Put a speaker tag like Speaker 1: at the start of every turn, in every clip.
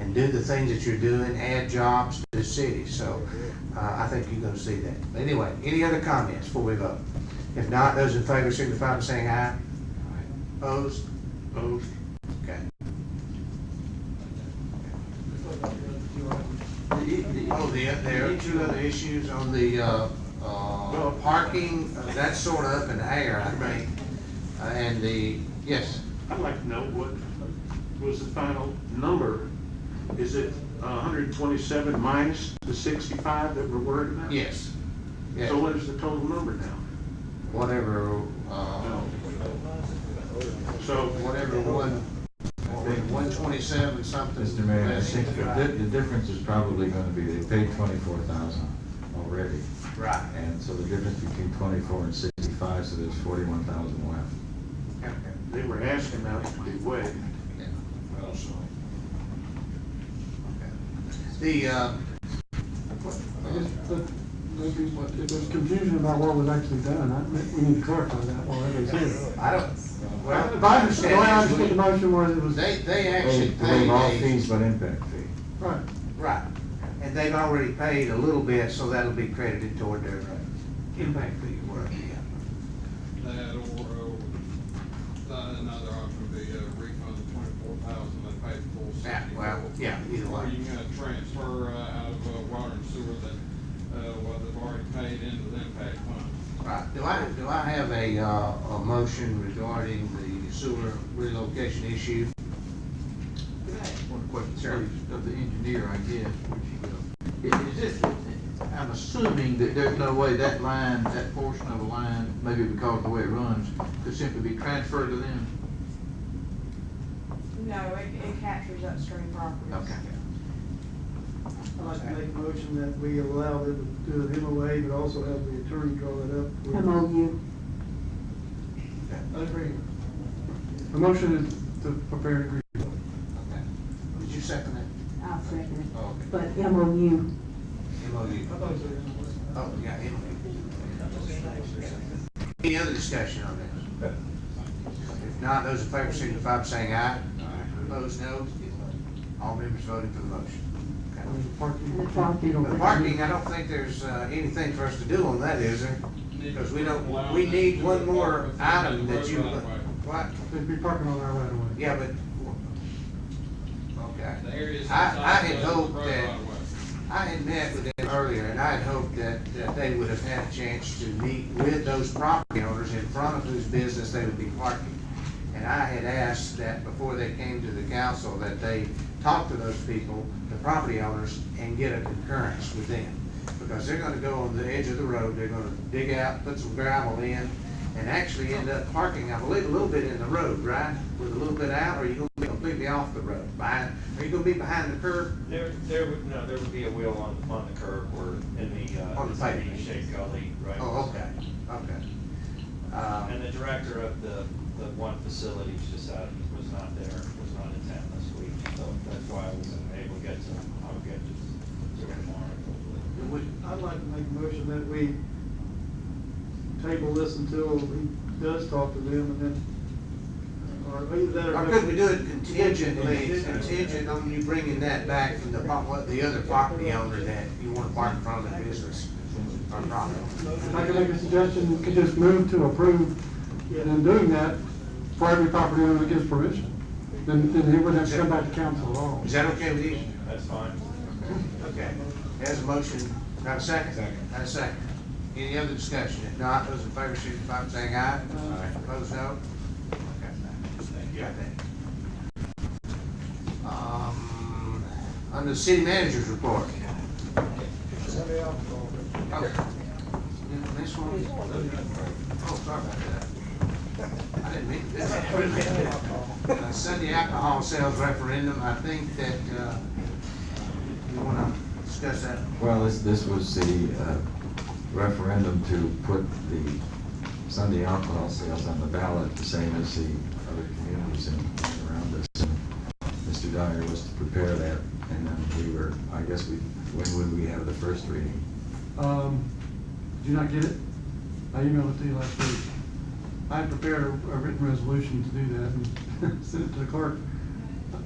Speaker 1: and do the things that you're doing, add jobs to the city, so, uh, I think you're gonna see that. Anyway, any other comments before we vote? If not, those in favor signify by saying aye. Opposed? Opposed. Okay. Oh, the, there are two other issues on the, uh, uh, parking, uh, that's sort of up in the air, I think. Uh, and the, yes,
Speaker 2: I'd like to know what was the final number? Is it hundred and twenty-seven minus the sixty-five that we're worried about?
Speaker 1: yes, yes,
Speaker 2: So what is the total number now?
Speaker 1: whatever, uh,
Speaker 2: So,
Speaker 1: whatever one, one twenty-seven something.
Speaker 3: Mr. Mayor, I
Speaker 1: less
Speaker 3: think the,
Speaker 1: than-
Speaker 3: di- the difference is probably gonna be, they paid twenty-four thousand already,
Speaker 1: Right.
Speaker 3: and so the difference between twenty-four and sixty-five, so there's forty-one thousand left.
Speaker 1: Okay.
Speaker 2: they were asking about it to be waived.
Speaker 1: Yeah. The, uh,
Speaker 4: I guess that may be what- if There's confusion about what was actually done. I think we need to clarify that while everybody's here.
Speaker 1: I don't, well.
Speaker 4: If I understand, the way I understood the motion was it was,
Speaker 1: They, they
Speaker 3: They
Speaker 1: actually paid
Speaker 3: waive all
Speaker 1: a,
Speaker 3: fees but impact fee.
Speaker 4: right,
Speaker 1: right, and they've already paid a little bit, so that'll be credited toward their uh, impact fee work, yeah.
Speaker 5: That or, uh, another option would be a refund of twenty-four thousand and pay the full
Speaker 1: Yeah, well,
Speaker 5: sixty-four.
Speaker 1: Ah, yeah, either
Speaker 5: Or
Speaker 1: way.
Speaker 5: you can uh, transfer uh, out of uh, water and sewer that, uh, well, they've already paid into the impact fund.
Speaker 6: Uh,
Speaker 1: Right, do I, do I have a, uh, a motion regarding the sewer relocation issue?
Speaker 6: One question,
Speaker 1: Sure.
Speaker 6: please, of the engineer, I guess, which you will. Is this, I'm assuming that there's no way that line, that portion of a line, maybe because of the way it runs, could simply be transferred to them?
Speaker 7: No, it, it captures upstream properties.
Speaker 6: Okay.
Speaker 4: I'd like to make a motion that we allow them to do an MOA, but also have the attorney draw it up.
Speaker 8: MOU.
Speaker 4: Agreement. The motion is to prepare an agreement.
Speaker 1: Okay. Did you second that?
Speaker 8: I'll second it.
Speaker 1: Oh, okay.
Speaker 8: But MOU,
Speaker 1: MOU. Oh, yeah, MOU. Any other discussion on this? If not, those in favor signify by saying aye. Opposed, no. All members voting for the motion. Okay.
Speaker 4: on the parking.
Speaker 8: the parking.
Speaker 1: The parking, I don't think there's uh, anything for us to do on that, is there? Because we don't, we need one more item that you, what?
Speaker 4: They'd be parking on our right of way.
Speaker 1: Yeah, but, okay.
Speaker 5: The areas.
Speaker 1: I- I
Speaker 5: outside
Speaker 1: had
Speaker 5: of the
Speaker 1: hoped
Speaker 5: road
Speaker 1: that-
Speaker 5: right of way.
Speaker 1: I had met with them earlier, and I had hoped that, that they would have had a chance to meet with those property owners in front of whose business they would be parking. And I had asked that before they came to the council, that they talk to those people, the property owners, and get a concurrence with them. Because they're gonna go on the edge of the road, they're gonna dig out, put some gravel in, and actually end up parking, I believe, a little bit in the road, right? With a little bit out, or you gonna be completely off the road, behind, are you gonna be behind the curb?
Speaker 9: There, there would, no, there would be a wheel on, on the curb or in the, uh.
Speaker 1: On the side.
Speaker 9: Shaped gully, right?
Speaker 1: Oh, okay, okay. Uh,
Speaker 9: And the director of the, the one facility just out, was not there, was not in town this week, so that's why I wasn't able to get to, him. I'll get to, to him tomorrow, hopefully.
Speaker 1: we-
Speaker 4: I'd like to make a motion that we table this until he does talk to them and then, or either that or.
Speaker 1: Or could we do it contingently, contingent on you bringing that back from the, pro- what, the other property owner that you want to park in front of the business? Or property?
Speaker 4: If I could make a suggestion, we could just move to approve, and in doing that, for every property owner that gives permission, then, then he wouldn't have to come back to council at all.
Speaker 1: Is that okay with you?
Speaker 9: That's fine.
Speaker 1: Okay. There's a motion, got a second?
Speaker 3: Second.
Speaker 1: Got a second. Any other discussion? If not, those in favor signify by saying aye.
Speaker 4: Aye.
Speaker 1: Opposed, no? Thank you. Um, under city manager's report. Oh. This one? Oh, sorry about that. I didn't mean to. Uh, Sunday alcohol sales referendum, I think that, uh, you wanna discuss that?
Speaker 3: Well, this, this was the uh, referendum to put the Sunday alcohol sales on the ballot, the same as the other communities in, around us. And Mr. Dyer was to prepare that, and then we were, I guess we, when would we have the first reading?
Speaker 4: Um, did you not get it? I emailed it to you last week. I prepared a a written resolution to do that and sent it to the clerk.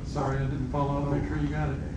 Speaker 4: Sorry, I didn't follow up, make sure you got it.